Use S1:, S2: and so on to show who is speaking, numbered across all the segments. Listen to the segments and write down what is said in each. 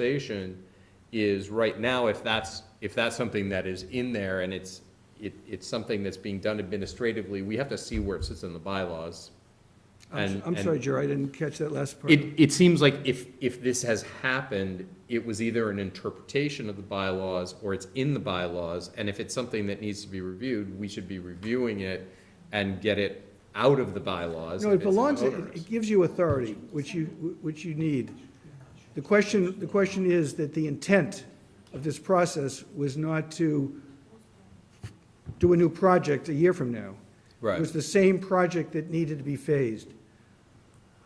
S1: conversation is right now, if that's, if that's something that is in there and it's, it, it's something that's being done administratively, we have to see where it sits in the bylaws.
S2: I'm
S1: And-
S2: s- I'm
S1: and-
S2: sorry, Jerry, I didn't catch that last part.
S1: It, it seems like if, if this has happened, it was either an interpretation of the bylaws or it's in the bylaws. And if it's something that needs to be reviewed, we should be reviewing it and get it out of the bylaws.
S2: No,
S1: if
S2: it
S1: it's an
S2: belongs, it
S1: onerous.
S2: it gives you authority, which you, which you need. The question, the question is that the intent of this process was not to do a new project a year from now. It was
S1: Right,
S2: the same project that needed to be phased.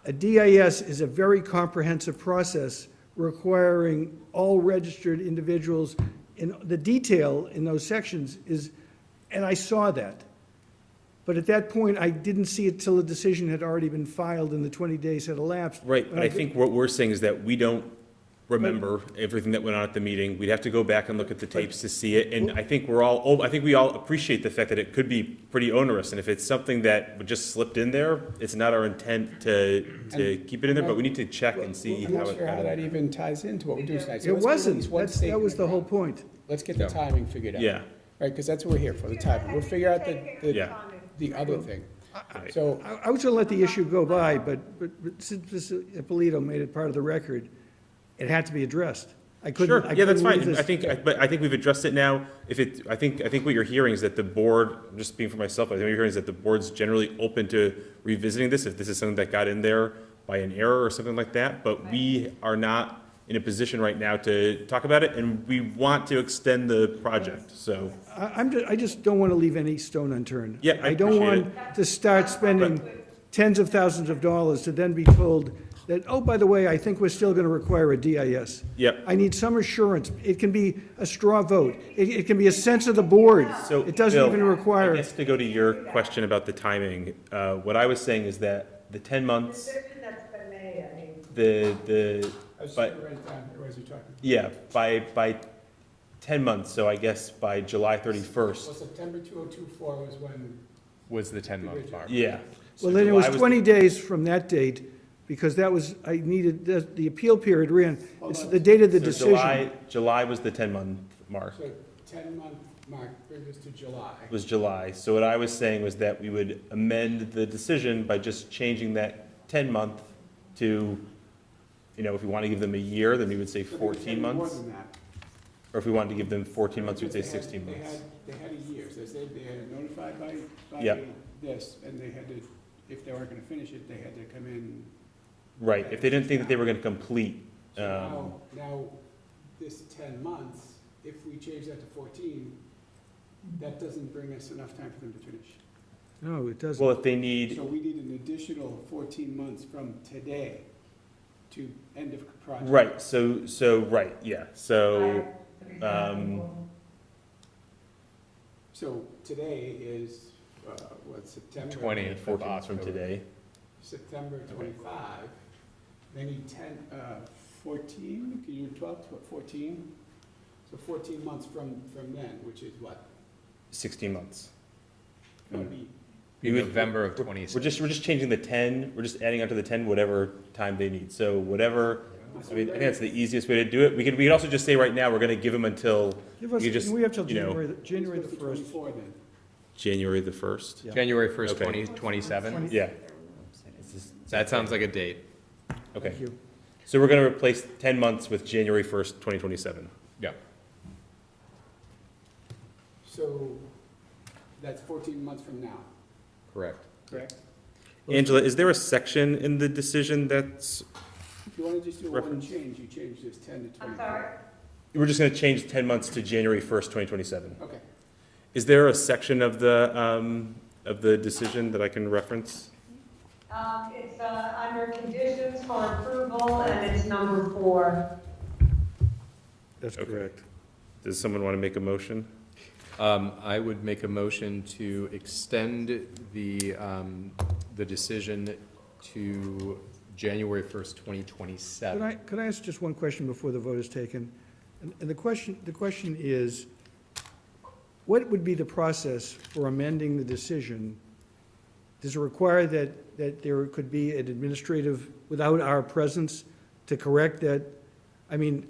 S2: A DIS is a very comprehensive process requiring all registered individuals, and the detail in those sections is, and I saw that. But at that point, I didn't see it till the decision had already been filed and the 20 days had elapsed.
S3: Right, but I think what we're saying is that we don't remember everything that went on at the meeting. We'd have to go back and look at the tapes to see it, and I think we're all, oh, I think we all appreciate the fact that it could be pretty onerous, and if it's something that would just slipped in there, it's not our intent to, to keep it in there, but we need to check and see
S4: I'm
S3: how
S4: not
S3: it
S4: sure how that
S3: got in.
S4: even ties into what we do tonight.
S2: It
S4: So let's get at least
S2: wasn't,
S4: one
S2: that's, that
S4: statement
S2: was the
S4: right
S2: whole
S4: now.
S2: point.
S4: Let's get the timing figured out.
S3: Yeah.
S4: Right, because that's what we're here for, the timing. We'll figure out the, the,
S3: Yeah.
S4: the other thing. So,
S2: I, I was gonna let the issue go by, but, but but since this Polito made it part of the record, it had to be addressed. I couldn't,
S3: Sure,
S2: I
S3: yeah, that's
S2: couldn't leave
S3: fine.
S2: this-
S3: I think, I- but I think we've addressed it now. If it, I think, I think what you're hearing is that the board, just being for myself, I think what you're hearing is that the board's generally open to revisiting this if this is something that got in there by an error or something like that. But we are not in a position right now to talk about it, and we want to extend the project, so.
S2: I, I'm, ju- I just don't want to leave any stone unturned.
S3: Yeah, I
S2: don't
S3: appreciate
S2: want to start spending tens of thousands of dollars to then be told that, oh, by the way, I think we're still going to require a DIS.
S3: Yep.
S2: I need some assurance. It can be a straw vote. It, it can be a sense of the board.
S3: So,
S2: It doesn't
S3: Bill,
S2: even require.
S3: I guess to go to your question about the timing, uh, what I was saying is that the ten months,
S5: decision that's been made, I mean,
S3: the, the,
S4: I was just
S3: but.
S4: gonna write it down here as you're talking.
S3: Yeah, by, by 10 months, so I guess by July
S4: Well,
S3: 31st.
S4: September 2024 was when,
S6: was the 10-month mark.
S3: Yeah. So
S2: Well, then it was
S3: July
S2: 20 days from that date, because that was, I needed, the- the appeal period ran, it's the date of the
S3: so
S2: decision.
S3: July, July was the 10-month mark,
S4: so 10-month mark brings us to July.
S3: was July. So what I was saying was that we would amend the decision by just changing that 10-month to, you know, if we want to give them a year, then we would say
S4: So they were
S3: 14
S4: more
S3: months.
S4: than that.
S3: Or if we wanted to give them 14 months, we'd
S4: Because
S3: say
S4: they had-
S3: 16
S4: they
S3: months.
S4: had- They had a year, so they said they had notified by, by
S3: Yep.
S4: this, and they had to, if they weren't gonna finish it, they had to come in.
S3: Right, if they didn't think that they were going to complete,
S4: So
S3: um,
S4: now, now, this ten months, if we change that to fourteen, that doesn't bring us enough time for them to finish.
S2: No, it doesn't.
S3: well, if they need,
S4: So we need an additional fourteen months from today to end of project.
S3: right, so, so, right, yeah, so.
S5: I-
S3: um,
S4: So today is, uh, what, September?
S6: 20th.
S3: four
S6: Of
S3: months from
S6: October.
S3: today.
S4: September twenty-five, they need ten, uh, fourteen, can you do twelve, fourteen? So fourteen months from, from then, which is what,
S3: 16 months.
S4: gonna
S2: Hmm.
S4: be
S6: Be
S3: We would-
S6: November of
S3: we're-
S6: 20
S3: We're just, we're just changing the 10, we're just adding onto the 10 whatever time they need. So whatever, I mean, I think that's the easiest way to do it. We could, we could also just say right now, we're going to give them until
S2: Give us,
S3: you just,
S2: we have till
S3: you know-
S2: January, the- January the
S4: It's
S2: 1st.
S4: Twenty-four then.
S3: January the 1st.
S2: Yeah.
S1: January first,
S3: Okay.
S1: twenty twenty-seven,
S3: Yeah,
S1: that sounds like a date.
S3: okay.
S2: Thank you.
S3: So we're going to replace 10 months with January 1st, 2027.
S1: Yeah.
S4: So that's fourteen months from now,
S1: Correct.
S4: correct?
S3: Angela, is there a section in the decision that's,
S4: If you wanna just do one
S3: Reference.
S4: change, you change this ten to
S5: I'm
S4: twenty-four.
S5: sorry,
S3: we're just going to change 10 months to January 1st, 2027?
S4: Okay,
S3: Is there a section of the, um, of the decision that I can reference?
S5: um, it's, uh, under conditions for approval, and it's number four.
S2: That's
S3: Okay.
S2: correct.
S3: Does someone want to make a motion?
S1: Um, I would make a motion to extend the, um, the decision to January first, twenty
S2: Could
S1: twenty-seven.
S2: I, could I ask just one question before the vote is taken? And and the question, the question is, what would be the process for amending the decision? Does it require that, that there could be an administrative, without our presence, to correct that I mean,